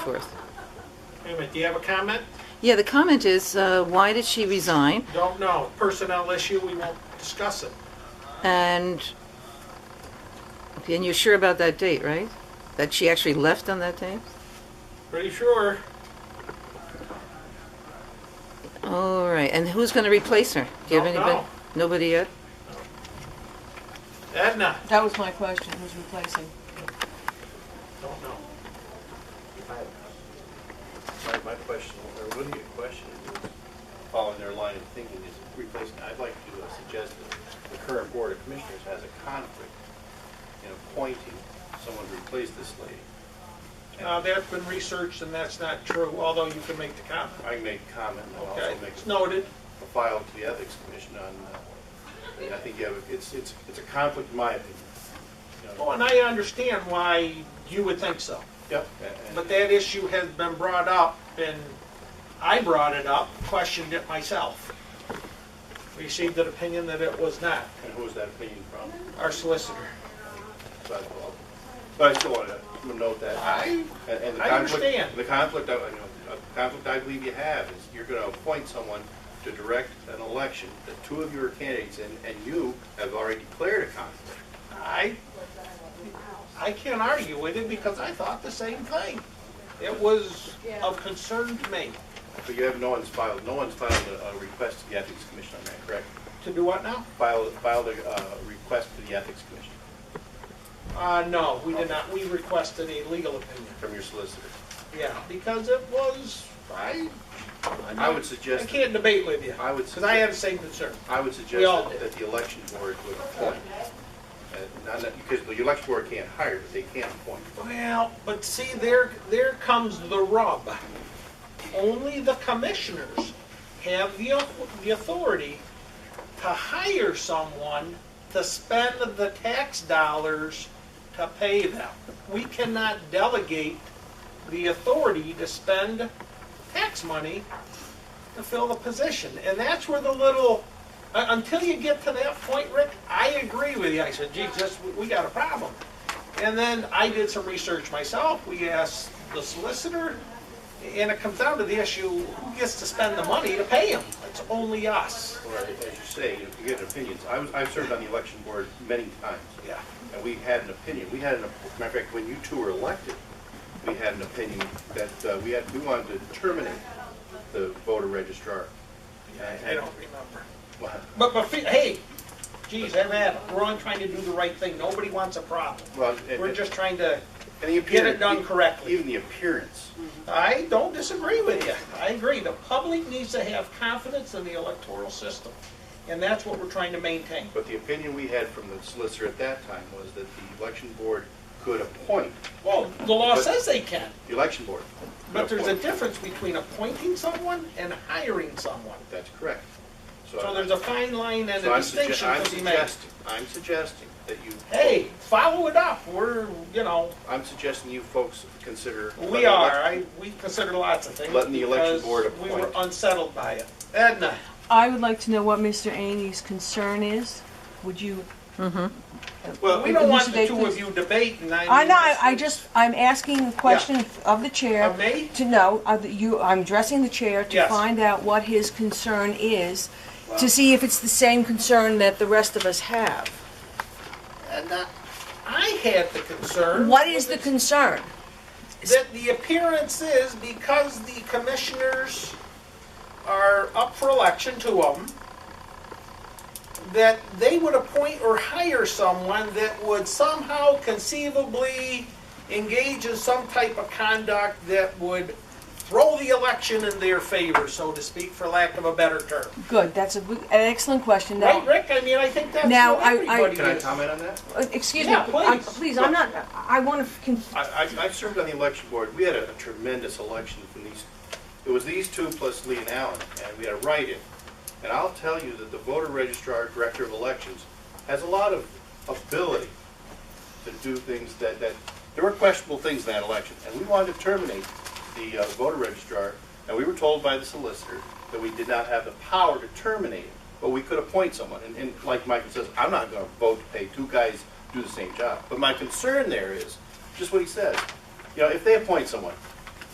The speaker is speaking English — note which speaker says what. Speaker 1: forth.
Speaker 2: Wait a minute, do you have a comment?
Speaker 1: Yeah, the comment is, uh, why did she resign?
Speaker 2: Don't know. Personnel issue, we won't discuss it.
Speaker 1: And, okay, and you're sure about that date, right? That she actually left on that date?
Speaker 2: Pretty sure.
Speaker 1: All right, and who's going to replace her? Do you have
Speaker 2: Don't
Speaker 1: anybody?
Speaker 2: know.
Speaker 1: Nobody yet?
Speaker 2: Edna,
Speaker 3: That was my question, who's replacing?
Speaker 2: don't know.
Speaker 4: My, my question, or really a question, is following their line of thinking is replacing, I'd like to uh, suggest that the current Board of Commissioners has a conflict in appointing someone to replace this lady. And
Speaker 2: Uh, that's been researched and that's not true, although you can make the comment.
Speaker 4: I can make a comment and I'll
Speaker 2: Okay,
Speaker 4: also make
Speaker 2: it's
Speaker 4: a
Speaker 2: noted.
Speaker 4: file to the Ethics Commission on, uh, and I think you have, a- it's, it's, it's a conflict in my opinion. You know,
Speaker 2: Oh, and I understand why you would think so.
Speaker 4: Yep. and- and-
Speaker 2: But that issue has been brought up and I brought it up, questioned it myself. Received an opinion that it was not,
Speaker 4: And who is that opinion from?
Speaker 2: our solicitor.
Speaker 4: But well, but I still want to note that.
Speaker 2: I-
Speaker 4: and- and the
Speaker 2: I
Speaker 4: conflict-
Speaker 2: understand.
Speaker 4: The conflict, I- you know, the conflict I believe you have is you're going to appoint someone to direct an election that two of you are candidates in, and you have already declared a conflict.
Speaker 2: I, I can't argue with it because I thought the same thing. It was of concern to me.
Speaker 4: But you have, no one's filed, no one's filed a a request to the Ethics Commission on that, correct?
Speaker 2: To do what now?
Speaker 4: Filed, filed a uh, request to the Ethics Commission
Speaker 2: Uh, no, we did not, we requested a legal opinion,
Speaker 4: from your solicitor.
Speaker 2: yeah, because it was, I,
Speaker 4: I
Speaker 2: I
Speaker 4: would
Speaker 2: I
Speaker 4: suggest, that-
Speaker 2: can't debate with you,
Speaker 4: I would
Speaker 2: because I have the same concern.
Speaker 4: I would
Speaker 2: We all
Speaker 4: suggest
Speaker 2: do.
Speaker 4: that- that the election board would appoint. Uh, Not, that- because the election board can't hire, but they can appoint.
Speaker 2: Well, but see, there, there comes the rub. Only the commissioners have the, au- the authority to hire someone to spend the tax dollars to pay them. We cannot delegate the authority to spend tax money to fill the position. And that's where the little, uh, until you get to that point, Rick, I agree with you. I said, gee, this, we- we got a problem. And then I did some research myself. We asked the solicitor, and it comes down to the issue, who gets to spend the money to pay him? It's only us.
Speaker 4: Or, as you say, you know, you get opinions. I was, I've served on the election board many times,
Speaker 2: Yeah.
Speaker 4: and we had an opinion. We had an, op- matter of fact, when you two were elected, we had an opinion that uh, we had, we wanted to terminate the voter registrar.
Speaker 2: I don't remember.
Speaker 4: Well,
Speaker 2: But, but, fe- hey, geez, I'm at, it. we're only trying to do the right thing. Nobody wants a problem.
Speaker 4: Well, and-
Speaker 2: We're just trying to,
Speaker 4: and the
Speaker 2: Get it
Speaker 4: appearance-
Speaker 2: done correctly.
Speaker 4: Even the appearance.
Speaker 2: I don't disagree with you. I agree. The public needs to have confidence in the electoral system. And that's what we're trying to maintain.
Speaker 4: But the opinion we had from the solicitor at that time was that the election board could appoint,
Speaker 2: Well, the law says they can.
Speaker 4: the election board.
Speaker 2: But there's a
Speaker 4: Appoint.
Speaker 2: difference between appointing someone and hiring someone.
Speaker 4: That's correct.
Speaker 2: So there's a fine line and
Speaker 4: So
Speaker 2: a
Speaker 4: I'm sugge-
Speaker 2: distinction
Speaker 4: I'm
Speaker 2: to be made.
Speaker 4: suggesting, I'm suggesting that you.
Speaker 2: Hey, follow it up, we're, you know,
Speaker 4: I'm suggesting you folks consider.
Speaker 2: we are, I, we consider lots of things.
Speaker 4: Letting the election
Speaker 2: because
Speaker 4: board
Speaker 2: We were
Speaker 4: appoint.
Speaker 2: unsettled by it. Edna,
Speaker 3: I would like to know what Mr. Aney's concern is. Would you?
Speaker 4: Well,
Speaker 2: we don't want the
Speaker 3: elucidate
Speaker 2: two of
Speaker 3: this?
Speaker 2: you debating, I mean.
Speaker 3: I know, I-
Speaker 2: it's-
Speaker 3: I just, I'm asking a question of the chair.
Speaker 2: Of me?
Speaker 3: To know, of the- you, I'm addressing the chair to
Speaker 2: Yes.
Speaker 3: find out what his concern is, to see if it's the same concern that the rest of us have.
Speaker 2: Edna, I had the concern.
Speaker 3: What is the concern?
Speaker 2: that the appearance is because the commissioners are up for election, two of them, that they would appoint or hire someone that would somehow conceivably engage in some type of conduct that would throw the election in their favor, so to speak, for lack of a better term.
Speaker 3: Good, that's a, an excellent question. Now-
Speaker 2: Right, Rick? I mean, I think that's
Speaker 3: Now,
Speaker 2: what
Speaker 3: I- I-
Speaker 2: everybody
Speaker 4: Can I
Speaker 2: is.
Speaker 4: comment on that?
Speaker 3: Uh, Excuse me,
Speaker 2: Yeah,
Speaker 3: I'm-
Speaker 2: please.
Speaker 3: please, I'm not, I want to,
Speaker 4: I, I, I've served on the election board. We had a tremendous election from these, it was these two plus Lee and Allen, and we had a write-in. And I'll tell you that the voter registrar, director of elections, has a lot of ability to do things that, that, there were questionable things in that election. And we wanted to terminate the uh, voter registrar, and we were told by the solicitor that we did not have the power to terminate it, but we could appoint someone. And, and like Michael says, I'm not gonna vote to pay two guys to do the same job. But my concern there is, just what he says, you know, if they appoint someone,